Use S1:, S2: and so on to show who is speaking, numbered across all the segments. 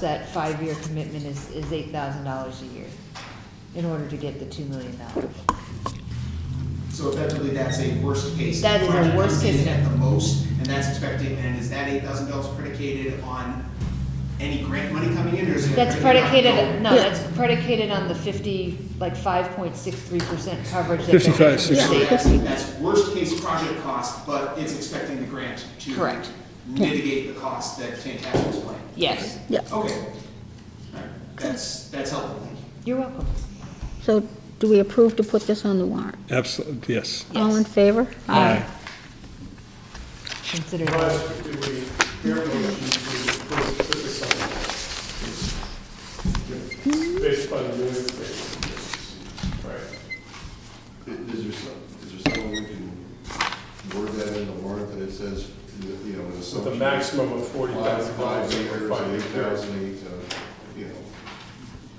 S1: that five-year commitment is, is eight thousand dollars a year in order to get the two million dollars.
S2: So effectively, that's a worst case.
S1: That is a
S2: Project
S1: worst
S2: comes in
S1: case.
S2: At the most, and that's expected, and is that eight thousand dollars predicated on any grant money coming in, or is it?
S1: That's predicated, no,
S3: Yeah.
S1: that's predicated on the fifty, like five point six three percent coverage that.
S3: 55,
S1: they're getting from the
S2: So
S3: 60.
S1: state.
S2: that's, that's worst case project cost, but it's expecting the grant to.
S1: Correct.
S2: Mitigate the cost that Tantascic's planning.
S1: Yes,
S3: Yeah,
S2: Okay, alright, that's, that's helpful, thank you.
S1: you're welcome.
S4: So do we approve to put this on the warrant?
S3: absolutely, yes.
S4: All in
S1: Yes.
S4: favor?
S1: Consider that.
S5: Request do we, your motion to approve to the sidewalk. Based on the minutes. that- Right.
S6: Is there some, is there someone we can word that in the warrant that it says, you know, an
S5: With a
S6: assumption?
S5: maximum of forty thousand
S6: Five
S5: dollars
S6: years,
S5: over
S6: eight
S5: five years.
S6: thousand, eight, uh, you know,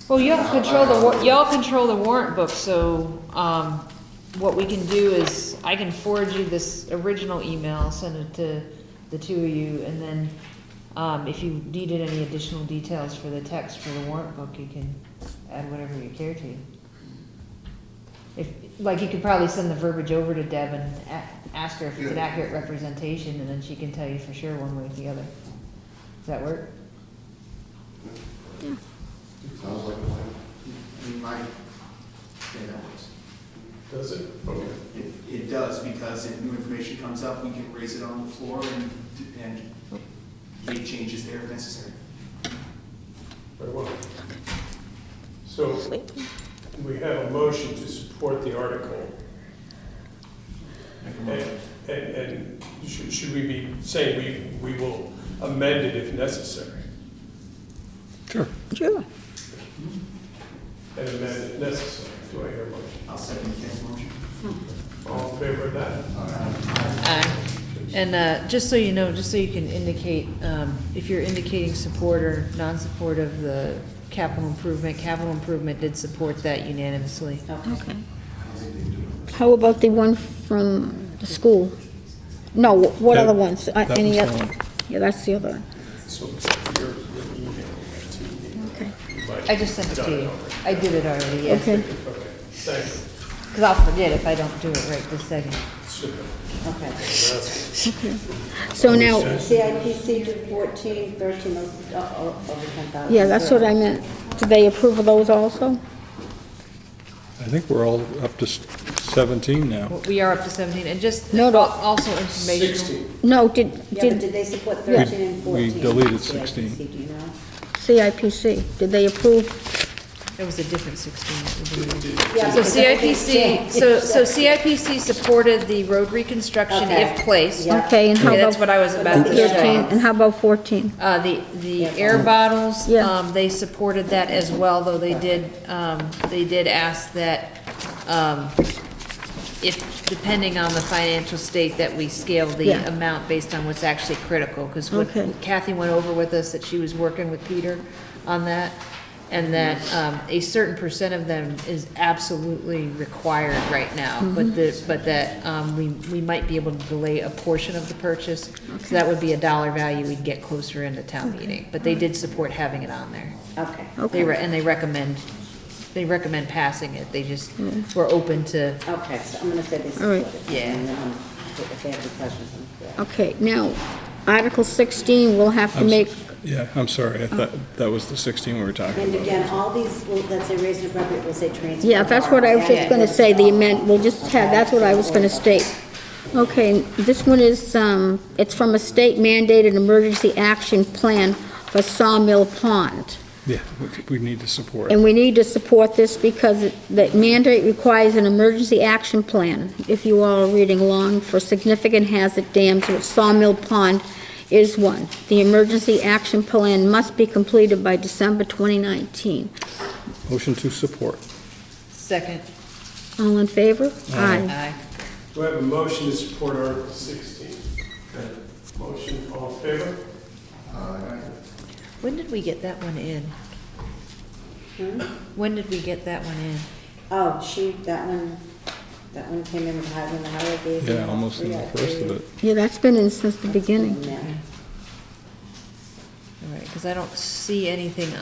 S1: Well, y'all control the, wa- y'all control the warrant book, so, um, what we can do is, I can forward you this original email, send it to the two of you, and then, um, if you needed any additional details for the text for the warrant book, you can add whatever you care to. If, like, you could probably send the verbiage over to Deb and a- ask her if it's an
S6: Yeah.
S1: accurate representation, and then she can tell you for sure one way or the other. Does that work?
S6: sounds like a plan.
S2: I mean, my, yeah, that works.
S5: Does it? Okay.
S2: It, it does, because if new information comes up, we can raise it on the floor and, and make changes there if necessary.
S5: Very well. So we have a motion to support the article. And, and, and should, should we be saying we, we will amend it if necessary?
S3: Sure.
S4: Sure.
S5: And amend it necessary. Do I hear a motion?
S2: I'll second Ken's motion.
S5: All in favor of that?
S1: Uh, And uh, just so you know, just so you can indicate, um, if you're indicating support or non-support of the capital improvement, capital improvement did support that unanimously.
S4: Okay. How about the one from the school? No, what
S3: That-
S4: other ones? Uh,
S3: that
S4: Any
S3: was the
S4: other?
S3: one.
S4: Yeah, that's the other one.
S5: So your, your email to me.
S4: Okay.
S5: You might-
S1: I just sent it to
S5: Done
S1: you.
S5: already.
S1: I did it already, yes.
S4: Okay.
S5: Okay, thank you.
S1: Because I'll forget if I don't do it right this second.
S5: Super.
S7: Okay.
S5: That's
S4: So now,
S7: CIPC 14, 13, those, oh, oh, over 10,000.
S4: yeah, that's what I meant. Do they approve of those also?
S3: I think we're all up to s- 17 now.
S1: Well, We are up to 17, and just
S4: No,
S1: al-
S4: no.
S1: also information.
S5: sixteen.
S4: No, did,
S7: Yeah, but
S4: did
S7: did they support 13 and
S3: We- we
S7: 14?
S3: deleted
S7: CIPC,
S3: 16.
S7: Do you know?
S4: CIPC, did they approve?
S1: It was a different 16. that we did.
S7: Yeah,
S1: So
S7: because everything's
S1: CIPC,
S7: changed.
S1: so so CIPC supported the road reconstruction
S7: Okay.
S1: if placed.
S7: Yeah.
S4: Okay, and how
S1: Okay,
S4: about?
S1: that's what I was about to say.
S4: 13, and how about 14?
S1: Uh, the, the air bottles,
S4: Yeah.
S1: um, they supported that as well, though they did, um, they did ask that, um, if, depending on the financial state, that we scale the
S4: Yeah.
S1: amount based on what's actually critical, because what
S4: Okay.
S1: Kathy went over with us, that she was working with Peter on that, and that, um, a certain percent of them is absolutely required right now, but the,
S4: Mm-hmm.
S1: but that, um, we, we might be able to delay a portion of the purchase, so that would be a dollar value we'd get closer into town meeting, but they did support having it on there.
S7: Okay.
S1: They,
S4: Okay.
S1: re- and they recommend, they recommend passing it, they just were open to,
S7: Okay, so I'm going to say they
S4: All
S7: supported.
S4: right.
S1: Yeah.
S7: And then um, if they have any questions, I'm sure.
S4: Okay, now, Article 16, we'll have to
S3: I'm s-
S4: make,
S3: Yeah, I'm sorry, I thought that was the 16 we were talking
S7: And
S3: about.
S7: again, all these, will- let's say raise and appropriate, we'll say transfer.
S4: yeah, that's what I was just gonna say, the amend, we'll just have, that's what I was gonna state. Okay, this one is, um, it's from a state mandated emergency action plan for Sawmill Pond.
S3: Yeah, we- we need to support.
S4: And we need to support this because it- the mandate requires an emergency action plan, if you all are reading along, for significant hazard dams, which Sawmill Pond is one. The emergency action plan must be completed by December 2019.
S3: Motion to support.
S1: second,
S4: All in favor? Aye.
S1: aye.
S5: Do I have a motion to support Article sixteen? Motion, all in favor?
S1: When did we get that one in? When did we get that one in?
S7: Oh, she, that one, that one came in with high, when the highway gave.
S3: Yeah, almost in the first of it.
S4: Yeah, that's been in since the beginning.
S7: Yeah.
S1: All right, because I don't see anything